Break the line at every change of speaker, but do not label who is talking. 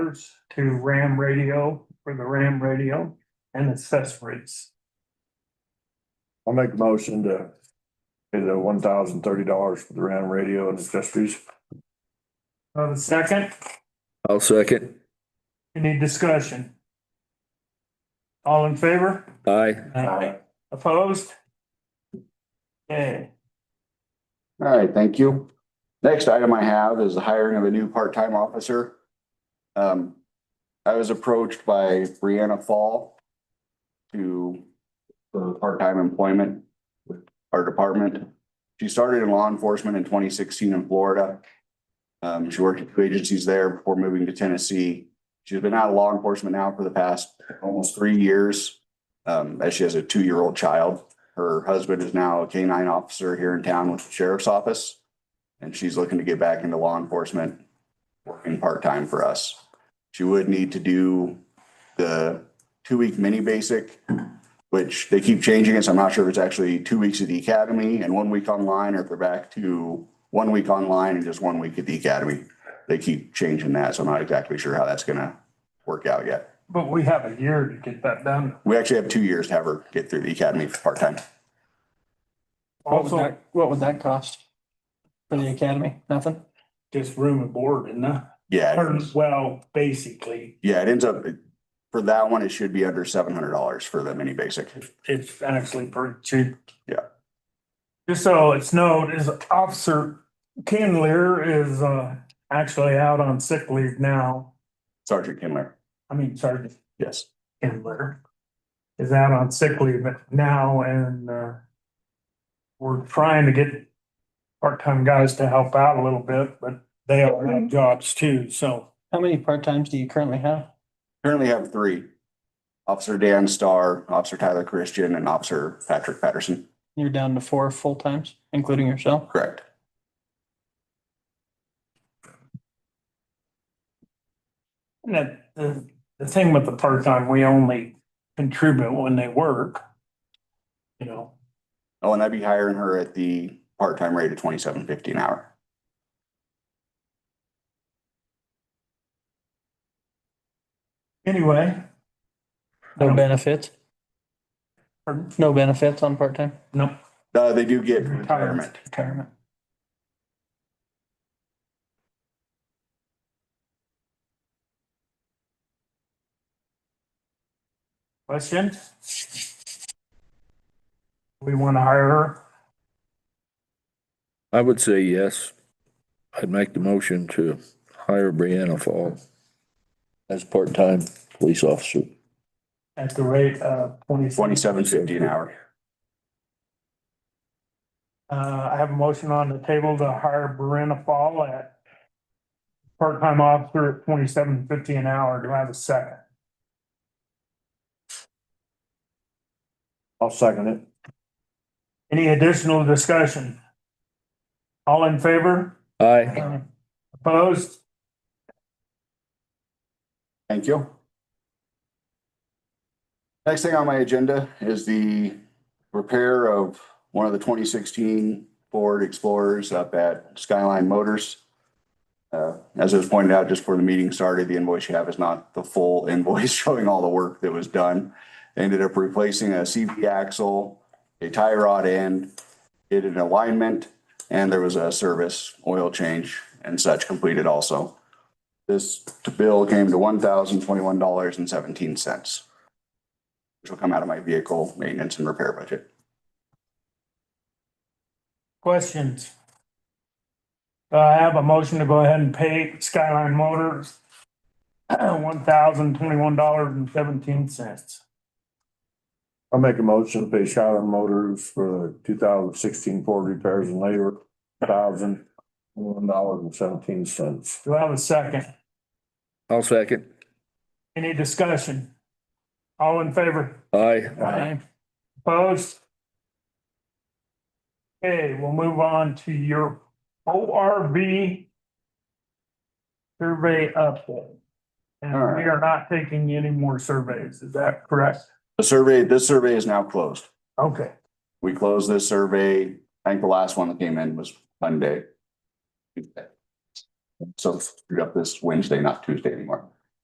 transfers to Ram Radio for the Ram Radio and accessories.
I'll make a motion to pay the one thousand thirty dollars for the Ram radio and accessories.
Uh, second,
I'll second.
any discussion? All in favor?
Aye.
Opposed? Okay,
All right, thank you. Next item I have is the hiring of a new part-time officer. Um, I was approached by Brianna Fall to for part-time employment with our department. She started in law enforcement in twenty sixteen in Florida. Um, she worked at two agencies there before moving to Tennessee. She's been out of law enforcement now for the past almost three years. Um, as she has a two-year-old child. Her husband is now a K nine officer here in town with the sheriff's office. And she's looking to get back into law enforcement, working part-time for us. She would need to do the two-week mini basic, which they keep changing it, so I'm not sure if it's actually two weeks at the academy and one week online, or if they're back to one week online and just one week at the academy. They keep changing that, so I'm not exactly sure how that's gonna work out yet.
but we have a year to get that done.
We actually have two years to have her get through the academy for part-time.
What would
Also,
that, what would that cost? For the academy? Nothing?
just room and board and that,
Yeah.
Or, well, basically,
Yeah, it ends up, for that one, it should be under seven hundred dollars for the mini basic.
it's actually pretty cheap.
Yeah.
Just so it's known, is Officer Kindler is uh actually out on sick leave now.
Sergeant Kindler,
I mean, Sergeant
yes.
Kindler is out on sick leave now and uh we're trying to get part-time guys to help out a little bit, but they all have jobs too, so.
How many part-times do you currently have?
Currently have three. Officer Dan Starr, Officer Tyler Christian, and Officer Patrick Patterson,
You're down to four full-times, including yourself?
correct?
And that, the, the thing with the part-time, we only contribute when they work. You know,
Oh, and I'd be hiring her at the part-time rate of twenty-seven fifty an hour.
anyway.
No benefits?
Pardon?
No benefits on part-time
Nope.
Uh, they do get retirement.
retirement?
Question? We want to hire her.
I would say yes. I'd make the motion to hire Brianna Fall as part-time police officer.
at the rate of twenty.
Twenty-seven fifty an hour.
Uh, I have a motion on the table to hire Brenna Fall at part-time officer at twenty-seven fifty an hour. Do I have a second?
I'll second it.
Any additional discussion? All in favor?
Aye.
Opposed?
Thank you. Next thing on my agenda is the repair of one of the twenty sixteen Ford Explorers up at Skyline Motors. Uh, as it was pointed out just before the meeting started, the invoice you have is not the full invoice showing all the work that was done. They Ended up replacing a CV axle, a tie rod end, did an alignment, and there was a service oil change and such completed also. This bill came to one thousand twenty-one dollars and seventeen cents. Which will come out of my vehicle maintenance and repair budget.
Questions? Uh, I have a motion to go ahead and pay Skyline Motors one thousand twenty-one dollars and seventeen cents.
I'll make a motion to pay Skylar Motors for the two thousand sixteen Ford repairs and labor, thousand one dollars and seventeen cents.
Do I have a second?
I'll second.
Any discussion? All in favor?
Aye.
Aye.
Opposed? Okay, we'll move on to your ORV survey update. And
All right.
we are not taking any more surveys, is that correct?
The survey, this survey is now closed.
Okay.
We closed this survey. I think the last one that came in was Monday. So screwed up this Wednesday, not Tuesday anymore.